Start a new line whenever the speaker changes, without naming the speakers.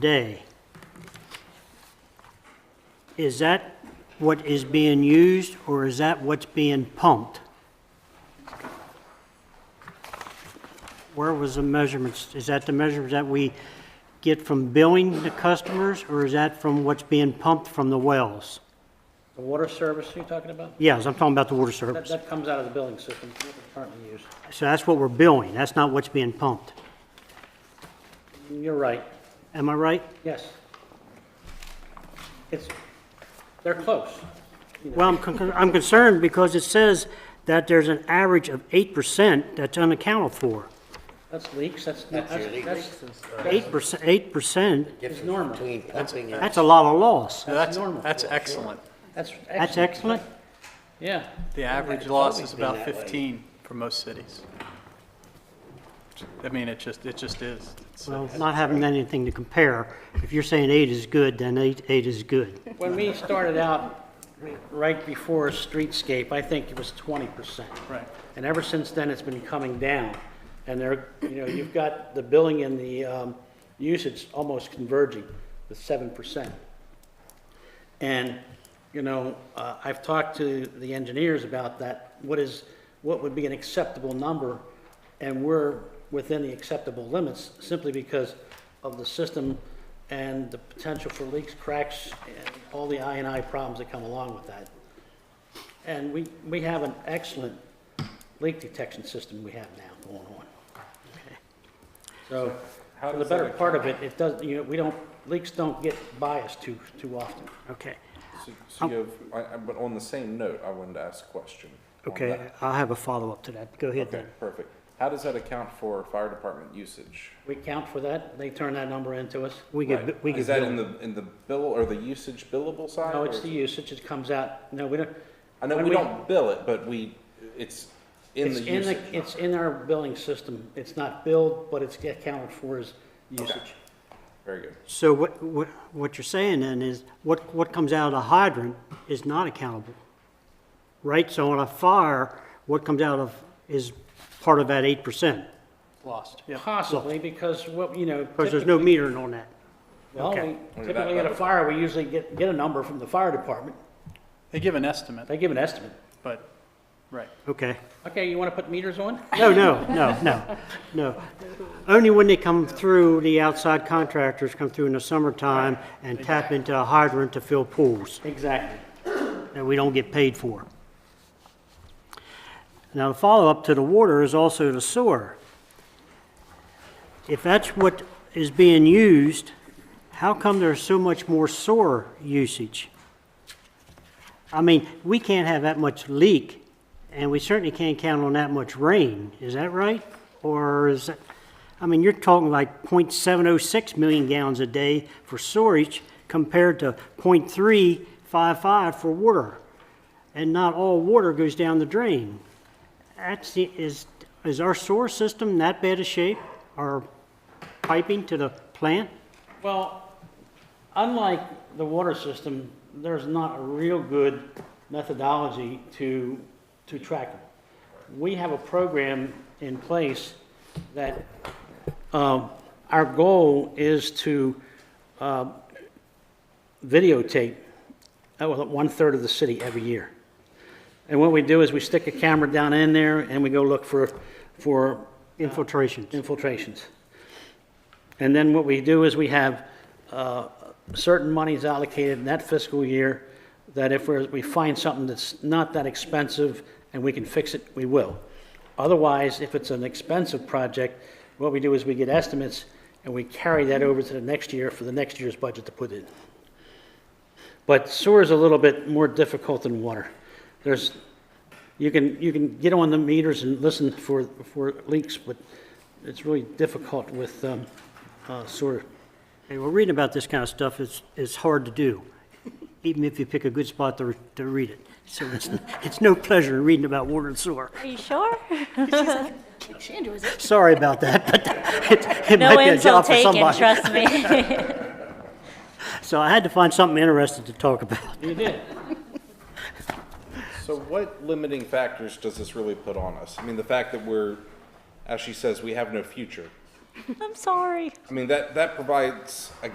day. Is that what is being used, or is that what's being pumped? Where was the measurements? Is that the measurements that we get from billing the customers, or is that from what's being pumped from the wells?
The water service you're talking about?
Yes, I'm talking about the water
That,
service.
that comes out of the billing system that we currently use.
So that's what we're billing, that's not what's being pumped.
You're right,
Am I right?
yes. It's, they're close.
Well, I'm con- I'm concerned because it says that there's an average of 8% that's unaccounted for.
That's leaks, that's, that's,
your leaks.
that's,
Eight percent, eight percent,
difference between pumping and,
that's a lot of loss.
That's,
normal.
that's excellent.
that's
That's
excellent.
excellent.
Yeah,
The average
it's
loss
always
is
been
about
that way.
15 for most cities. I mean, it just, it just is. It's-
Well, not having anything to compare, if you're saying eight is good, then eight, eight is good.
when we started out, right before streetscape, I think it was twenty percent.
Right.
And ever since then, it's been coming down. And there, you know, you've got the billing and the um, usage almost converging, the seven percent. And, you know, uh, I've talked to the engineers about that, what is, what would be an acceptable number? And we're within the acceptable limits simply because of the system and the potential for leaks, cracks, and all the I and I problems that come along with that. And we, we have an excellent leak detection system we have now going on. So, for the better part of it, it does, you know, we don't, leaks don't get biased too, too often.
Okay,
So, so you
Oh.
have, I, I, but on the same note, I wanted to ask a question. on
okay,
that.
I'll have a follow-up to that. Go ahead
Okay,
then.
perfect. How does that account for fire department usage?
We count for that, they turn that number into us.
We
Right.
get, we
Is that in
get,
the, in the bill or the usage billable side?
No,
or
it's
is
the
it-
usage, it comes out, no, we don't.
I know
when
we don't bill it, but we, it's in
It's
the
in
usage.
the, it's in our billing system, it's not billed, but it's get counted for as usage.
Very good.
so what, what, what you're saying then is, what, what comes out of the hydrant is not accountable, right? So on a fire, what comes out of, is part of that eight percent,
Lost, yeah.
Possibly, because what, you know.
because there's no metering on that.
Well, we-
okay.
that
typically at a
level.
fire, we usually get, get a number from the fire department,
They give an estimate,
they give an estimate.
but, right.
Okay.
Okay, you want to put meters on?
No, no, no, no, no. Only when they come through, the outside contractors come through in the summertime and tap into a hydrant to fill pools
Exactly.
that we don't get paid for. Now, the follow-up to the water is also the sewer. If that's what is being used, how come there's so much more sewer usage? I mean, we can't have that much leak, and we certainly can't count on that much rain, is that right? Or is, that- I mean, you're talking like .706 million gallons a day for storage compared to .355 for water, and not all water goes down the drain. That's, the- is, is our sewer system that bad a shape, our piping to the plant?
Well, unlike the water system, there's not a real good methodology to, to track them. We have a program in place that, um, our goal is to, um, videotape uh, well, one-third of the city every year. And what we do is we stick a camera down in there and we go look for, for
Infiltrations.
infiltrations. And then what we do is we have uh, certain monies allocated in that fiscal year that if we're- we find something that's not that expensive and we can fix it, we will. Otherwise, if it's an expensive project, what we do is we get estimates and we carry that over to the next year for the next year's budget to put in. But sewer is a little bit more difficult than water. There's, you can, you can get on the meters and listen for, for leaks, but it's really difficult with um, uh, sewer.
Hey, well, reading about this kind of stuff is, is hard to do, even if you pick a good spot to, re- to read it. So it's, it's no pleasure reading about water and sewer.
Are you sure?
Sorry about that, but it, it
No
might be a job
insult
for
taken,
somebody.
trust me.
So I had to find something interesting to talk about.
You did.
So what limiting factors does this really put on us? I mean, the fact that we're, as she says, we have no future.
I'm sorry.
I mean, that, that provides, I